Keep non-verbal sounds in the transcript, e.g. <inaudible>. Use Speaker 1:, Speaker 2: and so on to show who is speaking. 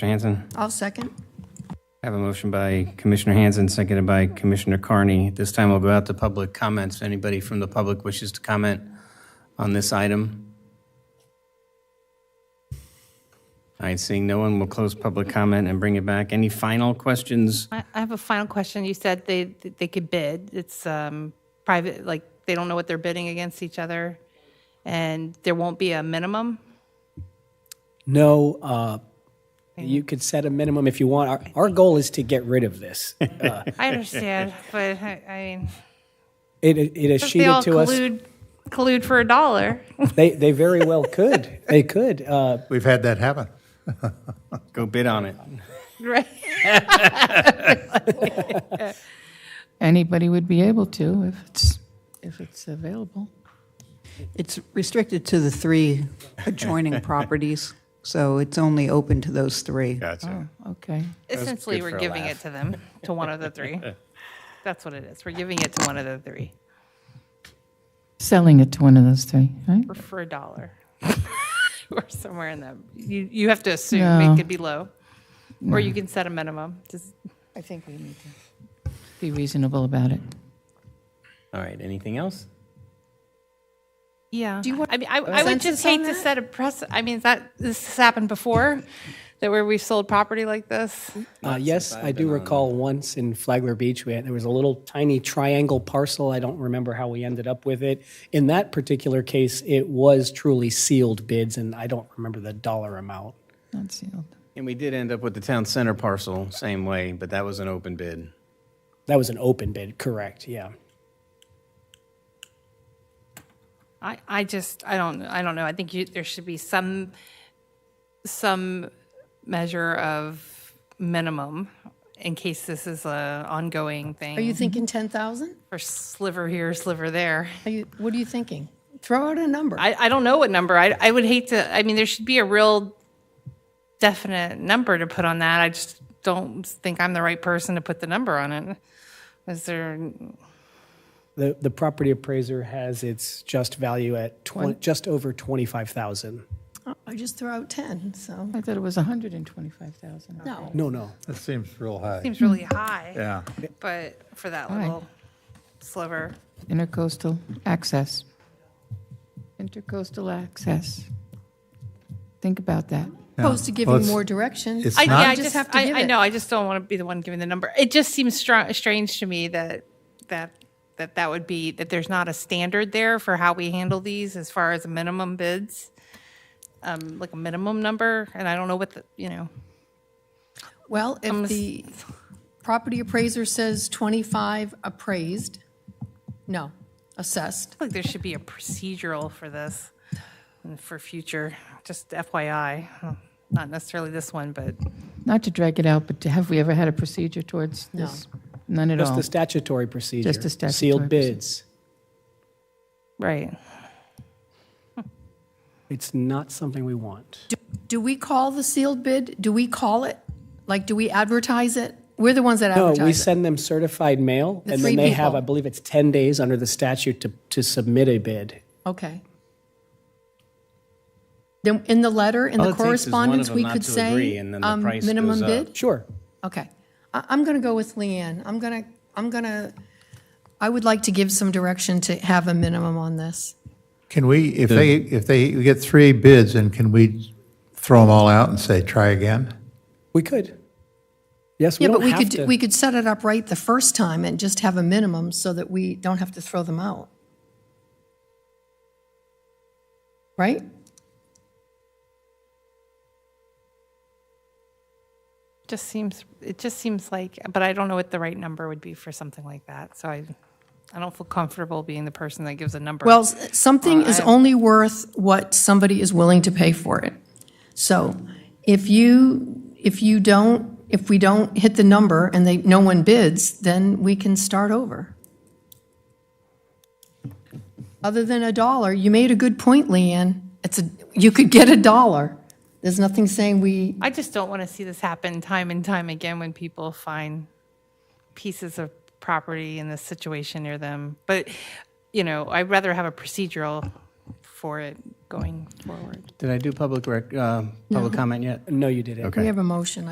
Speaker 1: Mr. Hanson?
Speaker 2: I'll second.
Speaker 1: I have a motion by Commissioner Hanson, seconded by Commissioner Carney. At This time, we'll go out to public comments. If Anybody from the public wishes to comment on this item? All right, seeing no one, we'll close public comment and bring it back. Any final questions?
Speaker 3: I I have a final question. You said they, they could bid. It's um, private, like, they don't know what they're bidding against each other, and there won't be a minimum?
Speaker 4: No, uh, you could set a minimum if you want. Our, our goal is to get rid of this. Uh,
Speaker 1: <laughs>
Speaker 3: I understand, but I I mean,
Speaker 4: It, it is
Speaker 3: they all
Speaker 4: sheeted to us.
Speaker 3: collude, collude for a dollar. <laughs>
Speaker 4: They, they very well could. They could. Uh,
Speaker 5: We've had that happen.
Speaker 1: Go bid on it.
Speaker 3: Right.
Speaker 6: anybody would be able to if it's, if it's available.
Speaker 2: It's restricted to the three adjoining properties, so it's only open to those three.
Speaker 5: Gotcha.
Speaker 6: Okay.
Speaker 3: Essentially,
Speaker 1: good for
Speaker 3: we're
Speaker 1: a
Speaker 3: giving
Speaker 1: laugh.
Speaker 3: it to them, to one of
Speaker 1: <laughs>
Speaker 3: the three. That's what it is. We're giving it to one of the three
Speaker 6: Selling it to one of those three, right?
Speaker 3: for, for a dollar. <laughs> Or somewhere in them. You, you have to assume
Speaker 6: No.
Speaker 3: it could be low, or you can set a minimum. Just-
Speaker 2: I think we need to.
Speaker 6: Be reasonable about it.
Speaker 1: All right, anything else?
Speaker 3: Yeah. Do you want? I mean, I, I would just hate to set a press. I mean, that this has happened before, that where we sold property like this.
Speaker 4: uh, yes, I do recall once in Flagler Beach, we had, there was a little tiny triangle parcel. I don't remember how we ended up with it. In that particular case, it was truly sealed bids, and I don't remember the dollar amount.
Speaker 6: Not sealed.
Speaker 1: And we did end up with the town center parcel, same way, but that was an open bid.
Speaker 4: That was an open bid, correct? Yeah.
Speaker 3: I, I just, I don't, I don't know. I think you, there should be some, some measure of minimum in case this is a ongoing thing.
Speaker 7: Are you thinking 10,000?
Speaker 3: Or sliver here, sliver there.
Speaker 7: Are you, what are you thinking? Throw out a number.
Speaker 3: I, I don't know what number. I, I would hate to, I mean, there should be a real definite number to put on that. I just don't think I'm the right person to put the number on it. Is there,
Speaker 4: The, the property appraiser has its just value at twen- just over 25,000.
Speaker 7: I just throw out 10, so.
Speaker 6: I thought it was 125,000.
Speaker 7: No,
Speaker 4: No, no.
Speaker 5: That seems real high.
Speaker 3: seems really high,
Speaker 5: Yeah.
Speaker 3: but for that
Speaker 6: right.
Speaker 3: little sliver.
Speaker 6: Intercoastal access. Intercoastal access. Think about that.
Speaker 7: opposed to
Speaker 5: Well,
Speaker 7: giving
Speaker 5: it's-
Speaker 7: more direction.
Speaker 5: it's
Speaker 3: I,
Speaker 5: not-
Speaker 3: yeah, I
Speaker 7: You
Speaker 3: just,
Speaker 7: just have to
Speaker 3: I,
Speaker 7: give
Speaker 3: I
Speaker 7: it.
Speaker 3: know. I just don't want to be the one giving the number. It just seems str- strange to me that that that that would be that there's not a standard there for how we handle these as far as minimum bids, um, like a minimum number. And I don't know what the you know.
Speaker 7: Well, if the property appraiser says 25 appraised, no, assessed.
Speaker 3: I feel like there should be a procedural for this and for future. Just FYI, not necessarily this one, but
Speaker 6: Not to drag it out, but have we ever had a procedure towards this? None at
Speaker 4: Just
Speaker 6: all.
Speaker 4: the statutory procedure.
Speaker 6: Just the statutory
Speaker 4: Sealed
Speaker 6: procedure.
Speaker 4: bids.
Speaker 3: right.
Speaker 4: It's not something we want.
Speaker 7: Do- Do we call the sealed bid? Do we call it? Like, do we advertise it? We're the ones that
Speaker 4: No, we
Speaker 7: advertise it.
Speaker 4: send them certified mail,
Speaker 7: The
Speaker 4: and then
Speaker 7: three
Speaker 4: they have,
Speaker 7: people.
Speaker 4: I believe it's 10 days under the statute to, to submit a bid.
Speaker 7: Okay. Then in the letter, in
Speaker 1: All
Speaker 7: the
Speaker 1: it takes is one of
Speaker 7: correspondence,
Speaker 1: them
Speaker 7: we
Speaker 1: not
Speaker 7: could
Speaker 1: to agree,
Speaker 7: say,
Speaker 1: and then the
Speaker 7: um,
Speaker 1: price
Speaker 7: minimum
Speaker 1: goes up.
Speaker 7: bid?
Speaker 4: Sure.
Speaker 7: Okay. I, I'm going to go with Leanne. I'm going to, I'm going to, I would like to give some direction to have a minimum on this.
Speaker 5: Can we, if they, if they we get three bids, and can we throw them all out and say, try again?
Speaker 4: We could. Yes, we
Speaker 7: Yeah, but
Speaker 4: don't
Speaker 7: we
Speaker 4: have
Speaker 7: could, we
Speaker 4: to.
Speaker 7: could set it up right the first time and just have a minimum so that we don't have to throw them out. Right?
Speaker 3: Just seems it just seems like, but I don't know what the right number would be for something like that. So I, I don't feel comfortable being the person that gives a number.
Speaker 7: Well, s- something is only worth what somebody is willing to pay for it. So if you, if you don't, if we don't hit the number and they, no one bids, then we can start over. Other than a dollar, you made a good point, Leanne. It's a, you could get a dollar. There's nothing saying we,
Speaker 3: I just don't want to see this happen time and time again when people find pieces of property in this situation near them. But you know, I'd rather have a procedural for it
Speaker 8: going forward.
Speaker 3: Did I do public uh, rec, uh, public comment yet?
Speaker 1: No, you didn't.
Speaker 3: Okay.
Speaker 7: We have a motion,